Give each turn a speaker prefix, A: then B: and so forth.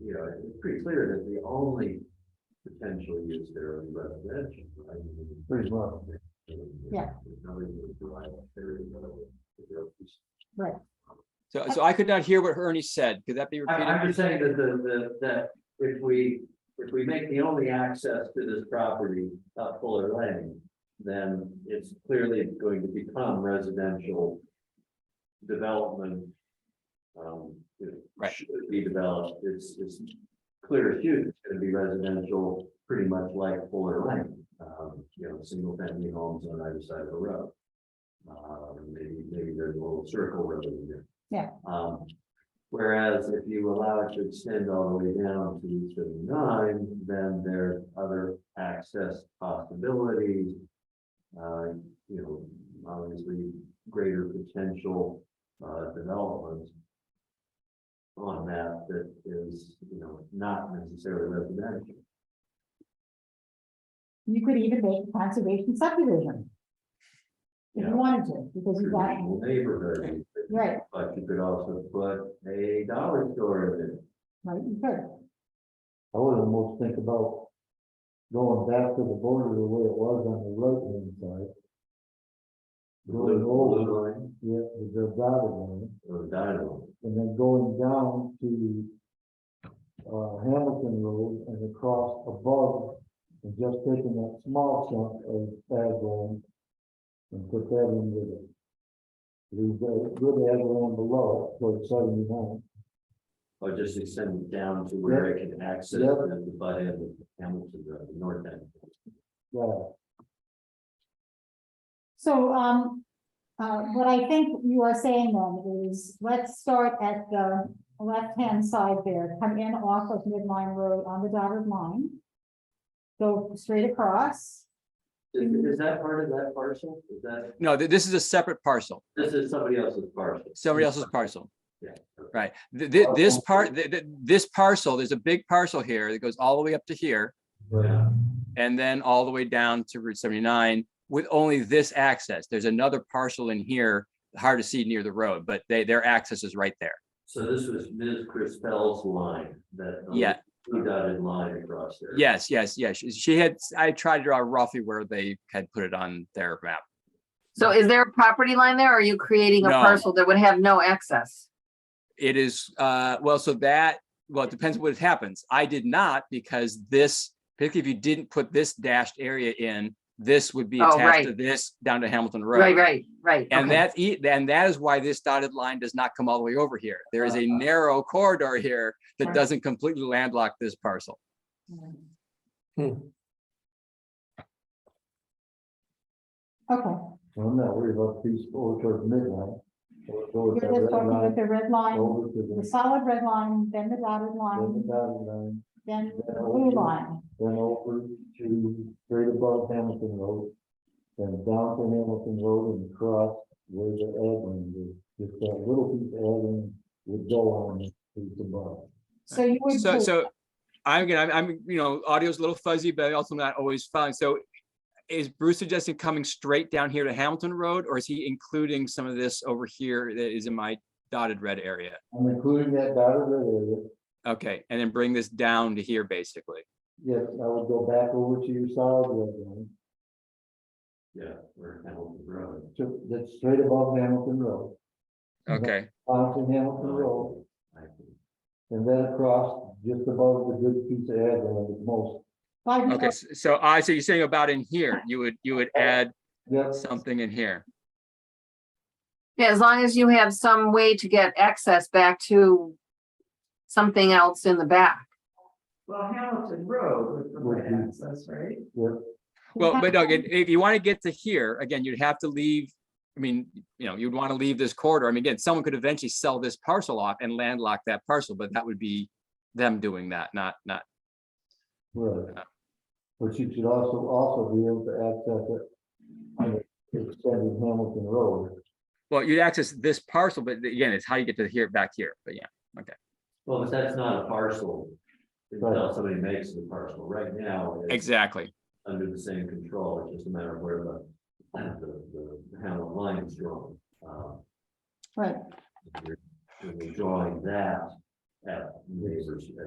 A: right, it's pretty clear that the only potential use there is residential, right? Pretty well.
B: Yeah. Right.
C: So, so I could not hear what Ernie said. Could that be
A: I'm,
C: repeated?
A: I'm just saying that the, the, that if we, if we make the only access to this property up Fuller Lane, then it's clearly going to become residential development. Um, you know,
C: Right.
A: should be developed, it's, it's clear as huge, it's gonna be residential, pretty much like Fuller Lane. Um, you know, single family homes on either side of the road. Uh, maybe, maybe there's a little circle road in there.
B: Yeah.
A: Um, Whereas if you allow it to extend all the way down to seventy-nine, then there's other access possibilities. Uh, you know, obviously greater potential, uh, development. On that that is, you know, not necessarily residential.
B: You could even make a conservation subdivision. If
A: Yeah.
B: you wanted to, because you got,
A: traditional Neighborhood,
B: right,
A: but you could also put a dollar store in it.
B: right, you could.
D: I would almost think about going back to the border the way it was on the right hand side,
A: the
D: Going
A: blue-
D: over.
A: blue line
D: yeah, the Delgado one,
A: Or the dynamo.
D: and then going down to uh, Hamilton Road and across above, and just taking that small chunk of ag land and put that in with it. Leave the good ag land below, so it's seventy-nine,
A: Or just extend it down to where it can access
D: Yep.
A: the the butt end of Hamilton Road, the north end.
D: yeah.
B: So, um, uh, what I think you are saying then is, let's start at the left-hand side there, come in off of Midline Road on the dotted line. Go straight across,
A: Is, is that part of that parcel? Is that,
C: No, th- this is a separate parcel,
A: this is somebody else's parcel?
C: somebody else's parcel.
A: Yeah.
C: Right. Th- th- this part, th- th- this parcel, there's a big parcel here that goes all the way up to here
A: Yeah,
C: and then all the way down to Route seventy-nine with only this access. There's another parcel in here, hard to see near the road, but they, their access is right there.
A: so this was Ms. Crispell's line that. the
C: Yeah.
A: Blue dotted line across there.
C: Yes, yes, yes. She- She had, I tried to draw roughly where they had put it on their map.
E: So is there a property line there? or Are you creating a
C: No.
E: parcel that would have no access?
C: It is, uh, well, so that, well, it depends what happens. I did not because this, particularly if you didn't put this dashed area in, this would be
E: Oh,
C: attached
E: right.
C: to this down to Hamilton Road.
E: Right, right, right.
C: And
E: okay.
C: that's, e- and that is why this dotted line does not come all the way over here. There is a
E: Uh-huh.
C: narrow corridor here that
B: Right.
C: doesn't completely landlock this parcel.
B: okay.
D: I'm not worried about these four towards midnight. or
B: You're
D: towards that
B: just
D: red
B: working
D: line
B: with the red line,
D: Over to
B: the
D: the,
B: solid red line, then the dotted
D: then the
B: line,
D: dotted line,
B: then the blue line.
D: then over to straight above Hamilton Road. Then down to Hamilton Road and across where the ag land is, just that little piece of ag land would go on this piece above.
B: So you would.
C: So,
B: put-
C: so I'm gonna, I'm- I'm, you know, audio's a little fuzzy, but I also not always following. So is Bruce suggesting coming straight down here to Hamilton Road or is he including some of this over here that is in my dotted red area?
D: I'm including that dotted red area,
C: Okay, and then bring this down to here, basically.
D: yes, I would go back over to your solid red line,
A: Yeah, where Hamilton Road.
D: to, that's straight above Hamilton Road.
C: Okay,
D: Onto Hamilton Road,
A: I think.
D: And then across, just above the good piece of ag land at most.
B: Why do you-
C: okay, s- so I, so you're saying about in here, you would, you would add
D: Yes,
C: something in here.
E: Yeah, as long as you have some way to get access back to something else in the back.
F: Well, Hamilton Road would
D: Would
F: provide
D: be-
F: access, right?
C: Well, but no,
B: Yeah.
C: again, if you want to get to here, again, you'd have to leave, I mean, you know, you'd want to leave this corridor. I mean, again, someone could eventually sell this parcel off and landlock that parcel, but that would be them doing that, not, not,
D: right. But you should also, also be able to access it on the extended Hamilton Road.
C: well, you'd access this parcel, but again, it's how you get to here, back here, but yeah.
A: Well, but that's not a parcel. Until
D: Right.
A: somebody makes it a parcel. Right now, it's
C: Exactly,
A: under the same control. It's just a matter of where the, the, the Hamilton line is drawn. Um,
B: Right.
A: We're drawing that at neighbors, at